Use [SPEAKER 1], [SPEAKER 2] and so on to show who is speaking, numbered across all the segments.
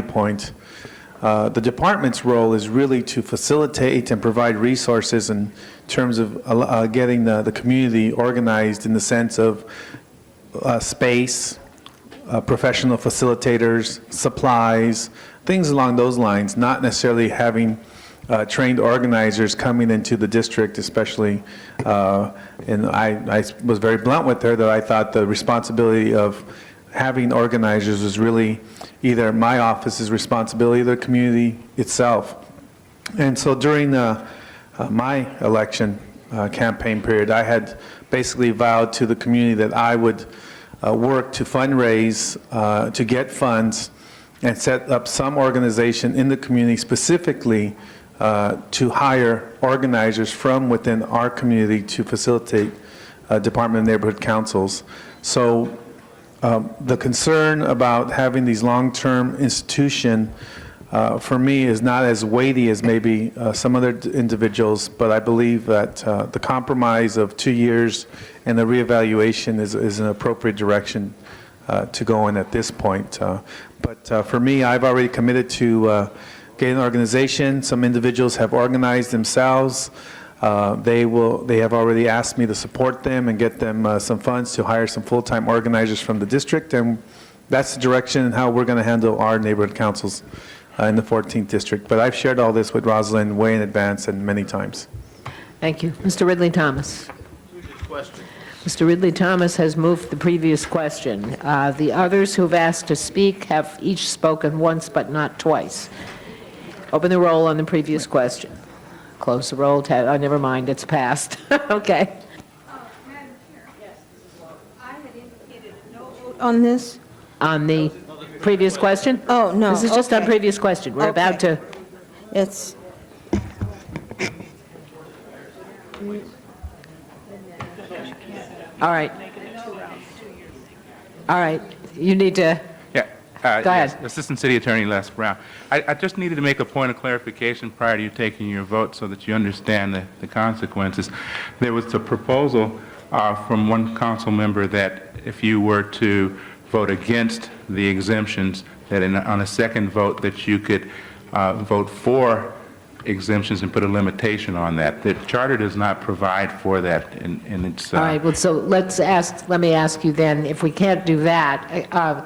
[SPEAKER 1] viewpoint, uh, the department's role is really to facilitate and provide resources in terms of uh, uh, getting the, the community organized in the sense of uh, space, uh, professional facilitators, supplies, things along those lines, not necessarily having uh, trained organizers coming into the district, especially, uh, and I, I was very blunt with her that I thought the responsibility of having organizers was really either my office's responsibility or the community itself. And so during uh, uh, my election uh, campaign period, I had basically vowed to the community that I would uh, work to fundraise, uh, to get funds, and set up some organization in the community specifically uh, to hire organizers from within our community to facilitate uh, Department of Neighborhood Councils. So the concern about having these long-term institution, uh, for me, is not as weighty as maybe uh, some other d- individuals, but I believe that uh, the compromise of two years and the reevaluation is, is an appropriate direction uh, to go in at this point. Uh, But uh, for me, I've already committed to uh, get an organization. Some individuals have organized themselves. Uh, They will, they have already asked me to support them and get them uh, some funds to hire some full-time organizers from the district, and that's the direction and how we're going to handle our neighborhood councils uh, in the 14th district. But I've shared all this with Rosalind way in advance and many times.
[SPEAKER 2] Thank you. Mr. Ridley Thomas.
[SPEAKER 3] Question.
[SPEAKER 2] Mr. Ridley Thomas has moved the previous question. Uh, The others who've asked to speak have each spoken once but not twice. Open the roll on the previous question. Close the roll, tab, oh, never mind, it's passed. Okay.
[SPEAKER 4] Madam Chair. Yes. I had indicated a no vote on this.
[SPEAKER 2] On the previous question?
[SPEAKER 4] Oh, no,
[SPEAKER 2] This is just on
[SPEAKER 4] okay.
[SPEAKER 2] previous question. We're about to,
[SPEAKER 4] It's,
[SPEAKER 2] all right. All right, you need to,
[SPEAKER 5] Yeah. uh,
[SPEAKER 2] Go
[SPEAKER 5] yes,
[SPEAKER 2] ahead.
[SPEAKER 5] Assistant City Attorney Les Brown. I I just needed to make a point of clarification prior to you taking your vote so that you understand the the consequences. There was a proposal uh, from one council member that if you were to vote against the exemptions, that in- on a second vote, that you could uh, vote for exemptions and put a limitation on that. The charter does not provide for that in in its... uh,
[SPEAKER 2] all right, well, so let's ask, let me ask you then, if we can't do that, uh,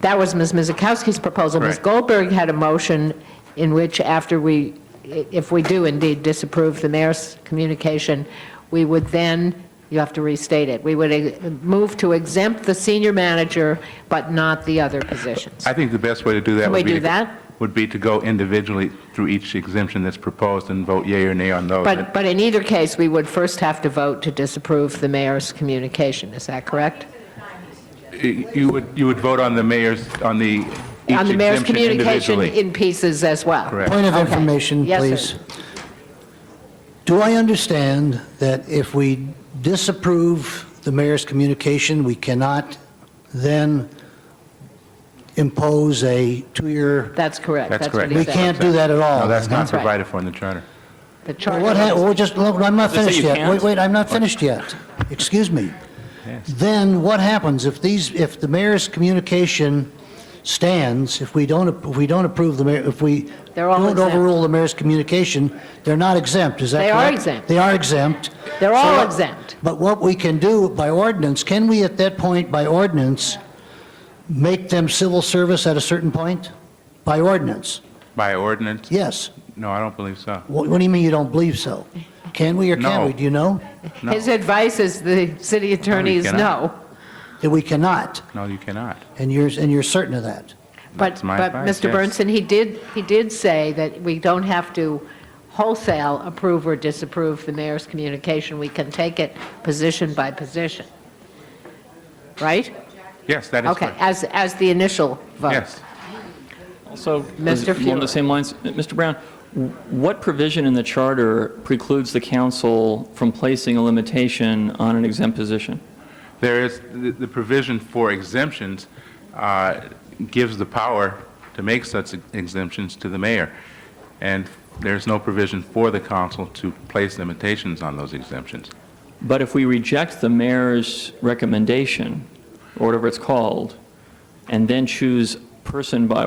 [SPEAKER 2] That was Ms. Mizakowski's proposal. Ms.
[SPEAKER 5] Correct.
[SPEAKER 2] Goldberg had a motion in which after we, if we do indeed disapprove the mayor's communication, we would then, you have to restate it, we would eh, move to exempt the senior manager but not the other positions.
[SPEAKER 5] I think the best way to do that
[SPEAKER 2] Can we
[SPEAKER 5] would be...
[SPEAKER 2] do
[SPEAKER 5] to-
[SPEAKER 2] that?
[SPEAKER 5] Would be to go individually through each exemption that's proposed and vote yea or nay on those.
[SPEAKER 2] But, but in either case, we would first have to vote to disapprove the mayor's communication, is that correct?
[SPEAKER 5] You would, you would vote on the mayor's, on the, each
[SPEAKER 2] On the mayor's
[SPEAKER 5] exemption
[SPEAKER 2] communication
[SPEAKER 5] individually.
[SPEAKER 2] in pieces as well?
[SPEAKER 5] Correct.
[SPEAKER 6] Point of
[SPEAKER 2] Okay.
[SPEAKER 6] information,
[SPEAKER 2] Yes, sir.
[SPEAKER 6] please. Do I understand that if we disapprove the mayor's communication, we cannot then impose a two-year,
[SPEAKER 2] That's correct.
[SPEAKER 5] That's
[SPEAKER 2] what
[SPEAKER 5] correct.
[SPEAKER 2] he
[SPEAKER 6] we
[SPEAKER 2] said.
[SPEAKER 6] can't do that at all?
[SPEAKER 5] No, that's not
[SPEAKER 2] right.
[SPEAKER 5] provided for in the charter.
[SPEAKER 2] The
[SPEAKER 6] Well,
[SPEAKER 2] charter
[SPEAKER 6] What, ha-
[SPEAKER 2] is-
[SPEAKER 6] well, just, look, I'm not
[SPEAKER 3] Does it say
[SPEAKER 6] finished
[SPEAKER 3] you
[SPEAKER 6] yet. Wait,
[SPEAKER 3] can't?
[SPEAKER 6] wait, I'm not finished yet. Excuse me. Then what happens if these, if the mayor's communication stands, if we don't, ap- if we don't approve the mayor, if we
[SPEAKER 2] They're all
[SPEAKER 6] don't
[SPEAKER 2] exempt.
[SPEAKER 6] overrule the mayor's communication, they're not exempt, is that
[SPEAKER 2] They are
[SPEAKER 6] correct?
[SPEAKER 2] exempt.
[SPEAKER 6] They are exempt.
[SPEAKER 2] They're
[SPEAKER 6] So
[SPEAKER 2] all
[SPEAKER 6] what-
[SPEAKER 2] exempt.
[SPEAKER 6] But what we can do by ordinance, can we at that point by ordinance make them civil service at a certain point? By ordinance?
[SPEAKER 5] By ordinance?
[SPEAKER 6] Yes.
[SPEAKER 5] No, I don't believe so.
[SPEAKER 6] What, what do you mean you don't believe so? Can we or can't
[SPEAKER 5] No.
[SPEAKER 6] we? Do you know?
[SPEAKER 5] No.
[SPEAKER 2] His advice is the city attorney is no.
[SPEAKER 5] cannot.
[SPEAKER 6] That we cannot,
[SPEAKER 5] No, you cannot.
[SPEAKER 6] and you're, and you're certain of that.
[SPEAKER 2] But,
[SPEAKER 5] That's my
[SPEAKER 2] but
[SPEAKER 5] advice,
[SPEAKER 2] Mr.
[SPEAKER 5] yes.
[SPEAKER 2] Burnson, he did, he did say that we don't have to wholesale approve or disapprove the mayor's communication. We can take it position by position. Right?
[SPEAKER 5] Yes, that is
[SPEAKER 2] Okay,
[SPEAKER 5] correct.
[SPEAKER 2] as, as the initial vote.
[SPEAKER 5] Yes.
[SPEAKER 3] Also,
[SPEAKER 2] Mr.
[SPEAKER 3] along
[SPEAKER 2] Fuhrer.
[SPEAKER 3] the same lines, Mr. Brown, w- what provision in the charter precludes the council from placing a limitation on an exempt position?
[SPEAKER 5] There is, the the provision for exemptions uh, gives the power to make such exemptions to the mayor, and there's no provision for the council to place limitations on those exemptions.
[SPEAKER 3] But if we reject the mayor's recommendation, or whatever it's called, and then choose person by